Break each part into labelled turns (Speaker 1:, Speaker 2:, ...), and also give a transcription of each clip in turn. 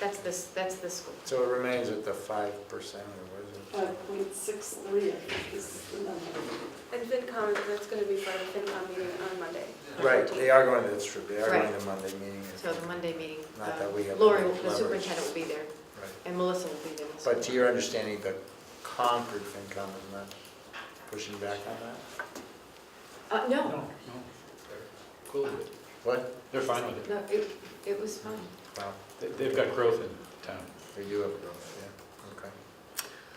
Speaker 1: this, that's this school.
Speaker 2: So it remains at the five percent or what is it?
Speaker 3: Five point six three, I think is the number.
Speaker 4: And FinCom, that's gonna be part of FinCom meeting on Monday. on
Speaker 2: Right,
Speaker 4: 14th.
Speaker 2: they are going to, that's true, they are going
Speaker 1: Right.
Speaker 2: to Monday meeting.
Speaker 1: So the Monday meeting,
Speaker 2: Not that
Speaker 1: uh,
Speaker 2: we have
Speaker 1: Lori,
Speaker 2: any
Speaker 1: the
Speaker 2: leverage.
Speaker 1: superintendent will be there,
Speaker 2: Right.
Speaker 1: and Melissa will be there. this
Speaker 2: But to
Speaker 1: week.
Speaker 2: your understanding, the Concord FinCom is not pushing back on that?
Speaker 1: Uh, no,
Speaker 5: No, no.
Speaker 2: What?
Speaker 5: They're fine with it.
Speaker 1: no, it, it was fine.
Speaker 2: Well,
Speaker 5: They- They've got growth in town.
Speaker 2: They do have growth, yeah, okay.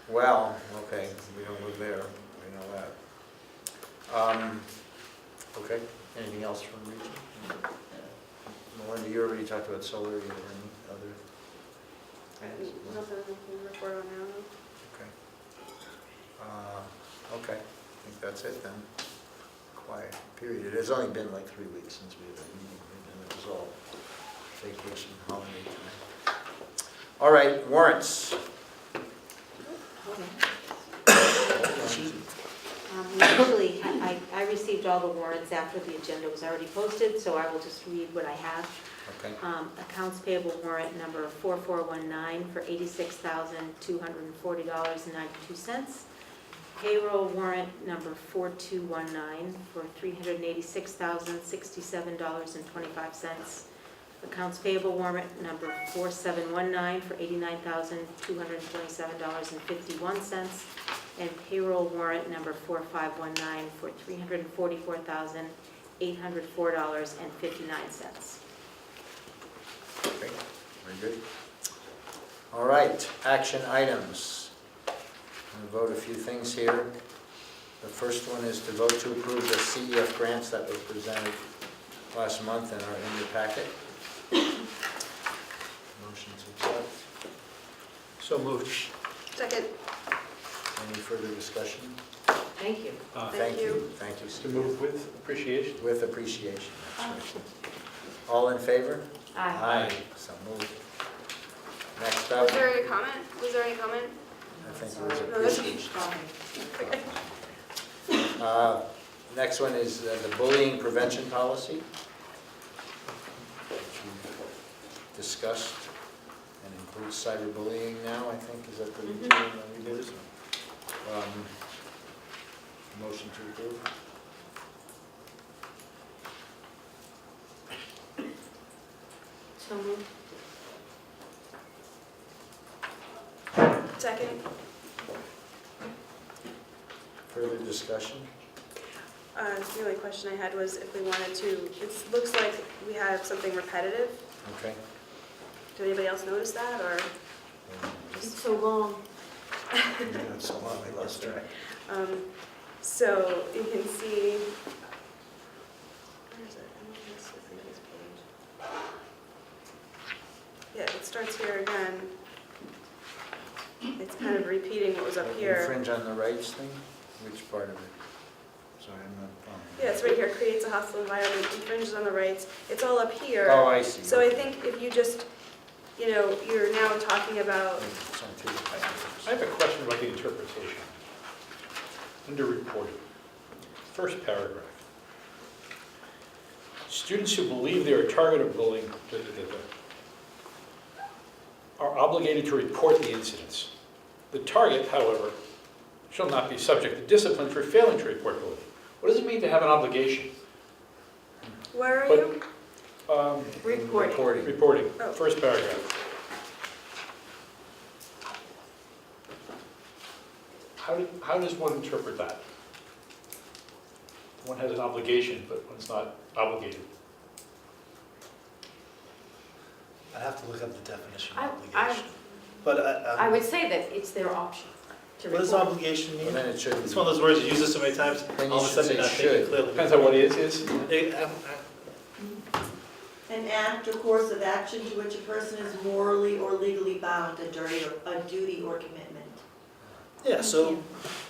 Speaker 2: Well, okay, we don't live there, we know that. Um, Okay, anything else from region? Melinda, you already talked about solar, you have any other? things?
Speaker 4: And Nothing we can report on now.
Speaker 2: Okay. Uh, Okay, I think that's it then. Quiet period. It has only been like three weeks since we had a meeting, and it was all vacation, holiday time. All right, warrants.
Speaker 6: Um, Usually, I, I received all the warrants after the agenda was already posted, so I will just read what I have.
Speaker 2: Okay,
Speaker 6: Um, Accounts payable warrant number 4419 for $86,240.92. Payroll warrant number 4219 for $386,067.25. Accounts payable warrant number 4719 for $89,227.51. And payroll warrant number 4519 for $344,804.59.
Speaker 2: okay, very good. All right, action items. I'm going to vote a few things here. The first one is to vote to approve the CEF grants that were presented last month and are in your packet. Motion to accept.
Speaker 5: So moved.
Speaker 4: Second,
Speaker 2: Any further discussion?
Speaker 1: Thank you.
Speaker 4: Oh, Thank you.
Speaker 2: Thank you,
Speaker 5: To
Speaker 2: Steve.
Speaker 5: move with appreciation.
Speaker 2: With appreciation. that's right. All in favor?
Speaker 1: Aye.
Speaker 5: Aye.
Speaker 2: So moved. Next up,
Speaker 4: was there
Speaker 2: I
Speaker 4: any comment? Was there any comment?
Speaker 2: think it was
Speaker 4: No, that's-
Speaker 2: appreciation.
Speaker 1: Aye.
Speaker 2: Uh, Next one is uh, the bullying prevention policy. which we Discussed and includes cyberbullying now, I think, is that the
Speaker 4: Mm-hmm.
Speaker 2: routine that we did? Um, Motion to approve?
Speaker 6: So moved.
Speaker 4: Second,
Speaker 2: Further discussion?
Speaker 4: uh, the only question I had was if we wanted to, it looks like we have something repetitive.
Speaker 2: Okay.
Speaker 4: Did anybody else notice that, or?
Speaker 6: It's so long.
Speaker 2: That's a lot, I lost track.
Speaker 4: Um, So you can see, where is it? I don't know if this is the next page. Yeah, it starts here again. It's kind of repeating what was up here.
Speaker 2: Infringe on the rights thing? Which part of it? Sorry, I'm not following.
Speaker 4: Yeah, it's right here, creates a hostile environment, infringes on the rights. It's all up
Speaker 2: Oh,
Speaker 4: here.
Speaker 2: I see.
Speaker 4: So I think if you just, you know, you're now talking about,
Speaker 2: It's on two
Speaker 5: I
Speaker 2: pages.
Speaker 5: have a question about the interpretation. Under reported, first paragraph. Students who believe they are a target of bullying da, da, da, da, are obligated to report the incidents. The target, however, shall not be subject to discipline for failing to report bullying. What does it mean to have an obligation?
Speaker 4: where are
Speaker 5: But-
Speaker 4: you?
Speaker 5: Um,
Speaker 1: Recording.
Speaker 2: Recording.
Speaker 5: Reporting,
Speaker 4: Oh.
Speaker 5: first paragraph. How, do- how does one interpret that? One has an obligation, but one's not obligated.
Speaker 7: I'd have to look up the definition
Speaker 1: I-
Speaker 7: of
Speaker 1: I-
Speaker 7: obligation. But I,
Speaker 1: I
Speaker 7: um,
Speaker 1: would say that it's their option to
Speaker 7: what does
Speaker 1: report.
Speaker 7: obligation
Speaker 2: And
Speaker 7: mean?
Speaker 2: then it should
Speaker 7: It's one
Speaker 2: be,
Speaker 7: of those words you use it so many times,
Speaker 2: Then you
Speaker 7: all of a
Speaker 2: should
Speaker 7: sudden
Speaker 2: say
Speaker 7: you're not thinking
Speaker 2: should.
Speaker 7: clearly.
Speaker 5: Depends on what is, is.
Speaker 7: It- um, uh, I- I-
Speaker 8: An act or course of action to which a person is morally or legally bound, a duty or, a duty or commitment.
Speaker 7: Yeah, so,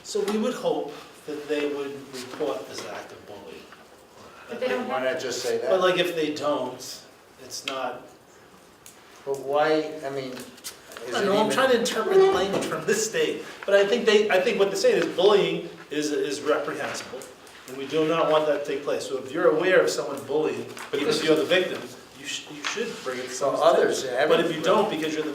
Speaker 7: so we would hope that they would report this act of bullying.
Speaker 1: But they don't
Speaker 2: why
Speaker 1: have,
Speaker 2: not just say
Speaker 7: But
Speaker 2: that?
Speaker 7: like if they don't, it's not,
Speaker 2: But why, I mean,
Speaker 7: I
Speaker 2: is it
Speaker 7: don't know, I'm trying
Speaker 2: even?
Speaker 7: to interpret the language from this state. But I think they, I think what they're saying is bullying is, is reprehensible. And we do not want that to take place. So if you're aware of someone bullying,
Speaker 5: But
Speaker 7: even
Speaker 5: this
Speaker 7: if
Speaker 5: is-
Speaker 7: you're the victim, you should, you should bring it to
Speaker 2: So
Speaker 7: someone's attention.
Speaker 2: others,
Speaker 7: But if you
Speaker 2: everyone-
Speaker 7: don't, because you're the